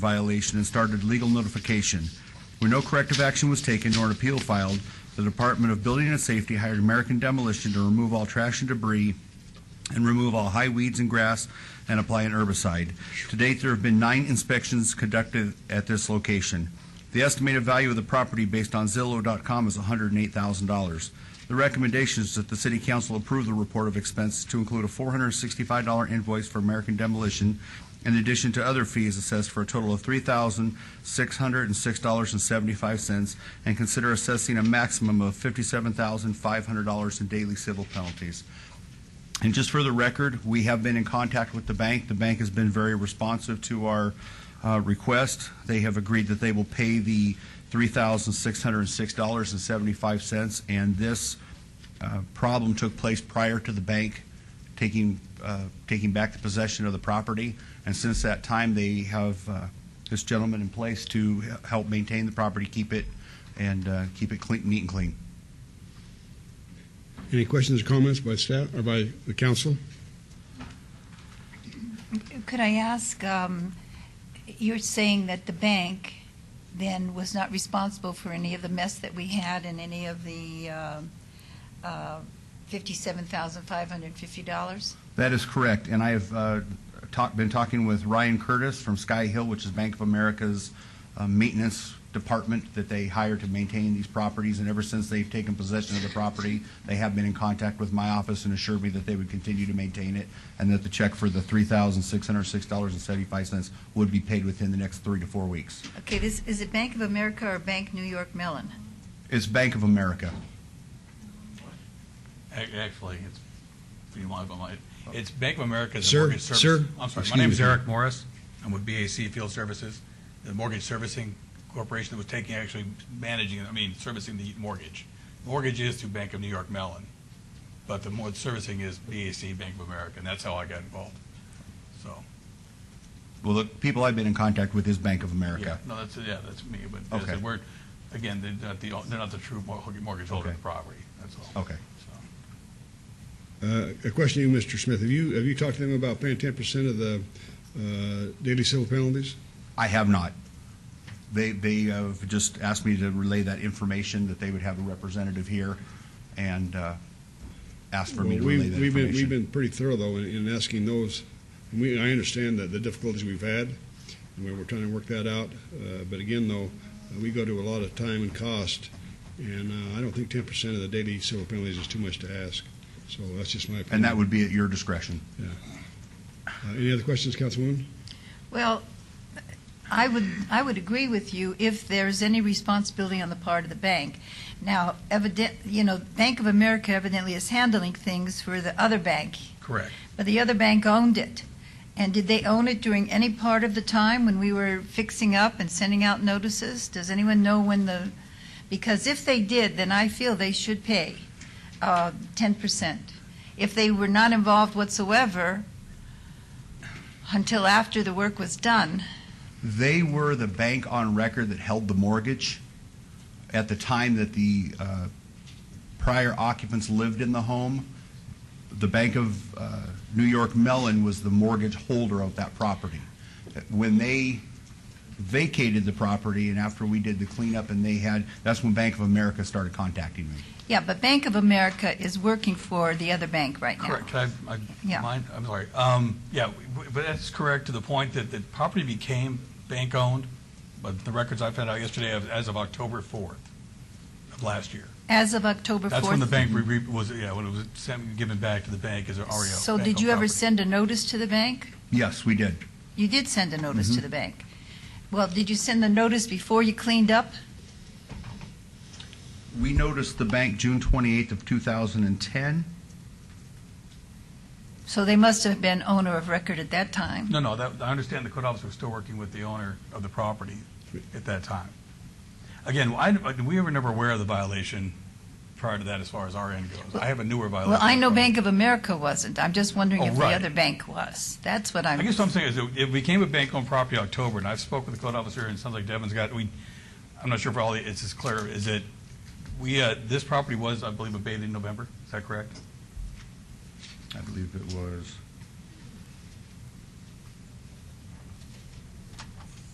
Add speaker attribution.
Speaker 1: violation and started legal notification. Where no corrective action was taken nor an appeal filed, the Department of Building and Safety hired American Demolition to remove all trash and debris and remove all high weeds and grass and apply an herbicide. To date, there have been nine inspections conducted at this location. The estimated value of the property based on Zillow.com is $108,000. The recommendation is that the city council approve the report of expense to include a $465 invoice for American Demolition in addition to other fees assessed for a total of $3,606.75 and consider assessing a maximum of $57,500 in daily civil penalties. And just for the record, we have been in contact with the bank. The bank has been very responsive to our uh, request. They have agreed that they will pay the $3,606.75, and this uh, problem took place prior to the bank taking, uh, taking back the possession of the property. And since that time, they have uh, this gentleman in place to he- help maintain the property, keep it, and uh, keep it clean, neat and clean.
Speaker 2: Any questions or comments by staff or by the council?
Speaker 3: Could I ask, um, you're saying that the bank then was not responsible for any of the mess that we had and any of the um, uh, $57,550?
Speaker 1: That is correct, and I have uh, talk- been talking with Ryan Curtis from Sky Hill, which is Bank of America's uh, maintenance department that they hire to maintain these properties, and ever since they've taken possession of the property, they have been in contact with my office and assured me that they would continue to maintain it, and that the check for the $3,606.75 would be paid within the next three to four weeks.
Speaker 3: Okay, this, is it Bank of America or Bank New York Mellon?
Speaker 1: It's Bank of America.
Speaker 4: Ac- Actually, it's, if you want to go on, it's Bank of America's
Speaker 2: Sir,
Speaker 4: mortgage service.
Speaker 2: sir,
Speaker 4: I'm sorry,
Speaker 2: excuse
Speaker 4: my name is
Speaker 2: me.
Speaker 4: Eric Morris. I'm with BAC Field Services, the mortgage servicing corporation that was taking, actually managing, I mean, servicing the mortgage. Mortgage is through Bank of New York Mellon, but the more servicing is BAC Bank of America, and that's how I got involved. So,
Speaker 1: Well, the people I've been in contact with is Bank of
Speaker 4: yeah,
Speaker 1: America.
Speaker 4: no, that's, yeah, that's me, but as I
Speaker 1: Okay.
Speaker 4: said, we're, again, they're not the, they're not the true mor- mortgage holder
Speaker 1: Okay.
Speaker 4: of the property, that's all.
Speaker 1: Okay.
Speaker 4: So.
Speaker 2: Uh, A question to you, Mr. Smith. Have you, have you talked to them about paying ten percent of the uh, daily civil penalties?
Speaker 1: I have not. They, they have just asked me to relay that information, that they would have a representative here, and uh, asked for me to
Speaker 2: Well, we-
Speaker 1: relay that
Speaker 2: we've been- We've
Speaker 1: information.
Speaker 2: been pretty thorough, though, in- in asking those. And We, I understand that the difficulties we've had, and we we're trying to work that out. Uh, But again, though, uh, we go to a lot of time and cost, and uh, I don't think ten percent of the daily civil penalties is too much to ask. So that's just my opinion.
Speaker 1: And that would be at your discretion.
Speaker 2: Uh, Any other questions, Councilwoman?
Speaker 3: Well, I would, I would agree with you if there's any responsibility on the part of the bank. Now, evident, you know, Bank of America evidently is handling things for the other bank
Speaker 4: Correct.
Speaker 3: but the other bank owned it. And did they own it during any part of the time when we were fixing up and sending out notices? Does anyone know when the, because if they did, then I feel they should pay uh, 10%. If they were not involved whatsoever until after the work was done,
Speaker 1: They were the bank on record that held the mortgage at the time that the uh, prior occupants lived in the home. The Bank of uh, New York Mellon was the mortgage holder of that property. When they vacated the property and after we did the cleanup and they had, that's when Bank of America started contacting me.
Speaker 3: yeah, but Bank of America is working for the other bank right now.
Speaker 4: Correct. Can I, I,
Speaker 3: Yeah.
Speaker 4: mind, I'm sorry. Um, yeah, w- w- but that's correct to the point that the property became bank-owned, but the records I found out yesterday of- as of October 4th of last year.
Speaker 3: As of October 4th.
Speaker 4: That's when the bank re- re- was, yeah, when it was sent- given back to the bank as an REO.
Speaker 3: So
Speaker 4: bank-owned
Speaker 3: did you ever
Speaker 4: property.
Speaker 3: send a notice to the bank?
Speaker 1: Yes, we did.
Speaker 3: You did send a notice to
Speaker 4: Mm-hmm.
Speaker 3: the bank. Well, did you send the notice before you cleaned up?
Speaker 1: We noticed the bank June 28th of 2010.
Speaker 3: So they must have been owner of record at that time.
Speaker 4: No, no, that, I understand the code officer was still working with the owner of the property at that time. Again, I, we were never aware of the violation prior to that as far as our end goes. I have a newer violation.
Speaker 3: Well, I know
Speaker 4: from-
Speaker 3: Bank of America wasn't. I'm just wondering
Speaker 4: Oh,
Speaker 3: if the
Speaker 4: right.
Speaker 3: other bank was. That's what I'm.
Speaker 4: I guess what I'm saying is it- it became a bank-owned property in October, and I've spoke with the code officer, and it sounds like Devin's got, we, I'm not sure if all, the- it's as clear, is it, we, uh, this property was, I believe, abated in November, is that correct?
Speaker 1: I believe it was